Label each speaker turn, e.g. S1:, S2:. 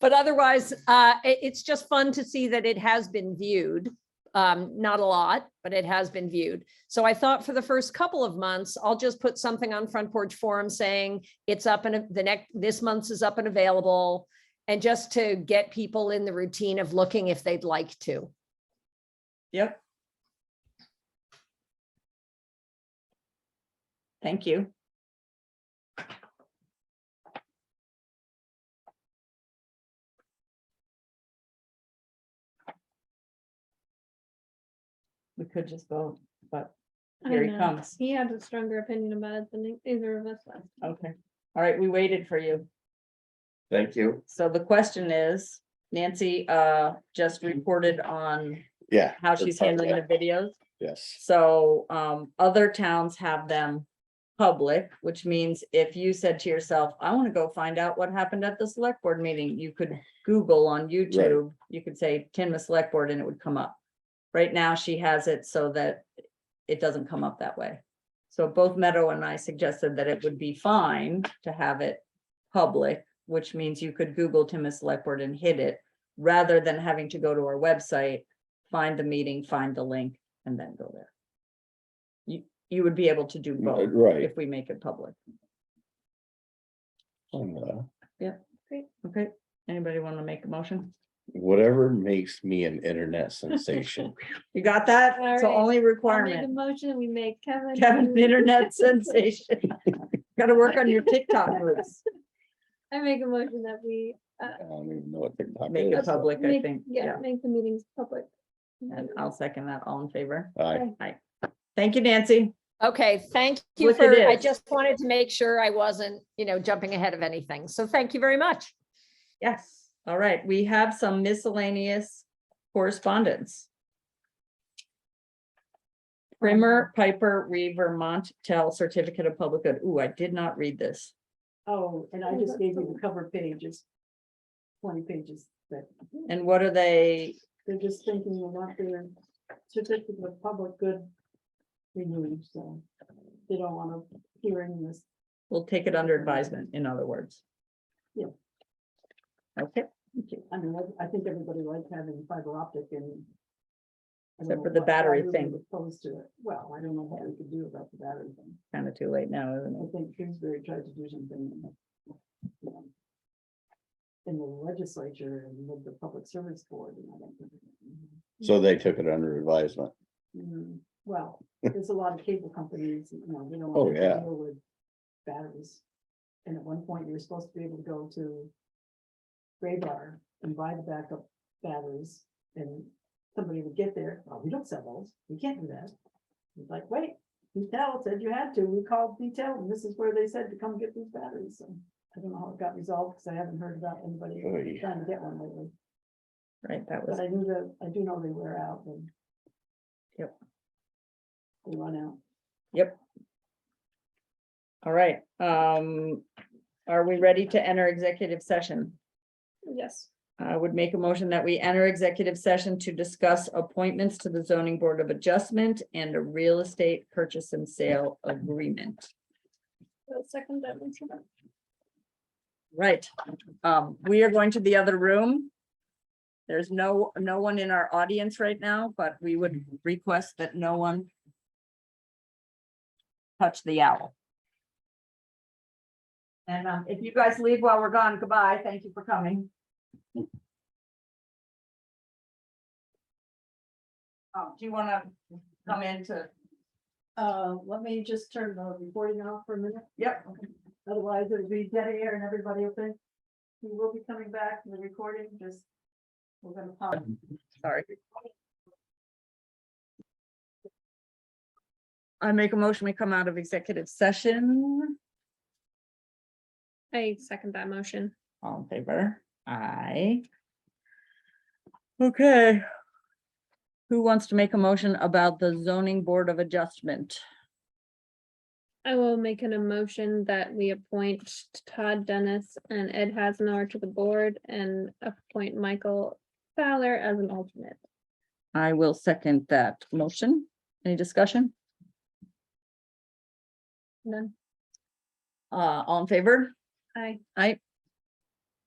S1: But otherwise, uh, it, it's just fun to see that it has been viewed. Um, not a lot, but it has been viewed. So I thought for the first couple of months, I'll just put something on Front Porch Forum saying it's up and the next, this month's is up and available. And just to get people in the routine of looking if they'd like to.
S2: Yep. Thank you. We could just vote, but
S3: I
S2: here he
S3: know.
S2: comes.
S3: He had a stronger opinion about it than e-, either of us. last time.
S2: Okay, all right, we waited for you.
S4: Thank you.
S2: So the question is, Nancy uh just reported on
S4: Yeah.
S2: how she's handling the videos.
S4: Yes.
S2: So um other towns have them public, which means if you said to yourself, I want to go find out what happened at the select board meeting, you could Google on YouTube, you could say Tinmouth Select Board and it would come up. Right now, she has it so that it doesn't come up that way. So both Meadow and I suggested that it would be fine to have it public, which means you could Google Tinmouth Select Board and hit it rather than having to go to our website, find the meeting, find the link, and then go there. You, you would be able to do both
S4: Right.
S2: if we make it public. Okay, anybody want to make a motion?
S4: Whatever makes me an internet sensation.
S2: You got that? It's the only
S3: Alright, I'll make a
S2: requirement.
S3: motion, we make Kevin.
S2: Kevin, an internet sensation. Gotta work on your TikTok moves.
S3: I make a motion that we
S4: I don't even know what TikTok
S2: Make it
S4: is.
S2: public, I
S3: make,
S2: think,
S3: yeah,
S2: yeah.
S3: make the meetings public.
S2: And I'll second that, all in favor.
S4: I,
S2: Thank you, Nancy.
S1: Okay, thank you
S2: Look,
S1: for,
S2: it
S1: I
S2: is.
S1: just wanted to make sure I wasn't, you know, jumping ahead of anything. So thank you very much.
S2: Yes, all right, we have some miscellaneous correspondence. Primer, Piper, Reed, Vermont, Tell Certificate of Public Good. Ooh, I did not read this.
S5: Oh, and I
S3: Oh,
S5: just
S3: that's
S5: gave you
S3: all.
S5: the cover pages. Twenty pages, that
S2: And what are they?
S5: they're just thinking they want their certificate of public good renewed, so they don't want to hear any of this.
S2: We'll take it under advisement, in other words.
S5: Yeah.
S2: Okay,
S5: I mean, I- I think everybody likes having fiber optic and. I don't
S2: Except for
S5: know
S2: the
S5: why- why
S2: battery
S5: we were
S2: thing.
S5: Opposed to it. Well, I don't know what we could do about the battery thing.
S2: kind of too late now, isn't
S5: I
S2: it?
S5: think Kingsbury tried to do something. um, In the legislature and with the public service board, and I don't think.
S4: so they took it under advisement.
S5: Mm, Well, there's a lot of cable companies, you know, they don't.
S4: Oh,
S5: want to
S4: yeah.
S5: deal with Batteries. And at one point, you were supposed to be able to go to Graybar and buy the backup batteries and somebody would get there, oh, we don't sell those, we can't do that. It's like, wait, Intel said you had to, we called detail and this is where they said to come get these batteries, so. I don't know how it got resolved, because I haven't heard about anybody
S4: Oy.
S5: trying to get one lately,
S2: Right, that was,
S5: but I knew that, I do know they wear out and.
S2: Yep.
S5: They run out.
S2: all right. Um, are we ready to enter executive session?
S3: Yes.
S2: I would make a motion that we enter executive session to discuss appointments to the zoning board of adjustment and a real estate purchase and sale agreement.
S3: I'll Second that motion.
S2: Right, um, we are going to the other room. There's no, no one in our audience right now, but we would request that no one touch the owl. And, um, if you guys leave while we're gone, goodbye. Thank you for coming. Um, do you wanna come in to?
S5: Uh, let me just turn the recording off for a minute.
S2: Yep.
S5: Otherwise it'll be dead air and everybody will think we will be coming back to the recording, just. We're gonna pause.
S2: Sorry. I make a motion, we come out of executive session,
S3: I second that motion.
S2: all in favor, aye. Okay. Who wants to make a motion about the zoning board of adjustment?
S3: I will make an emotion that we appoint Todd Dennis and Ed Hasnar to the board and appoint Michael Fowler as an alternate.
S2: I will second that motion, any discussion,
S3: None.
S2: uh, all in favor,
S3: I
S2: aye,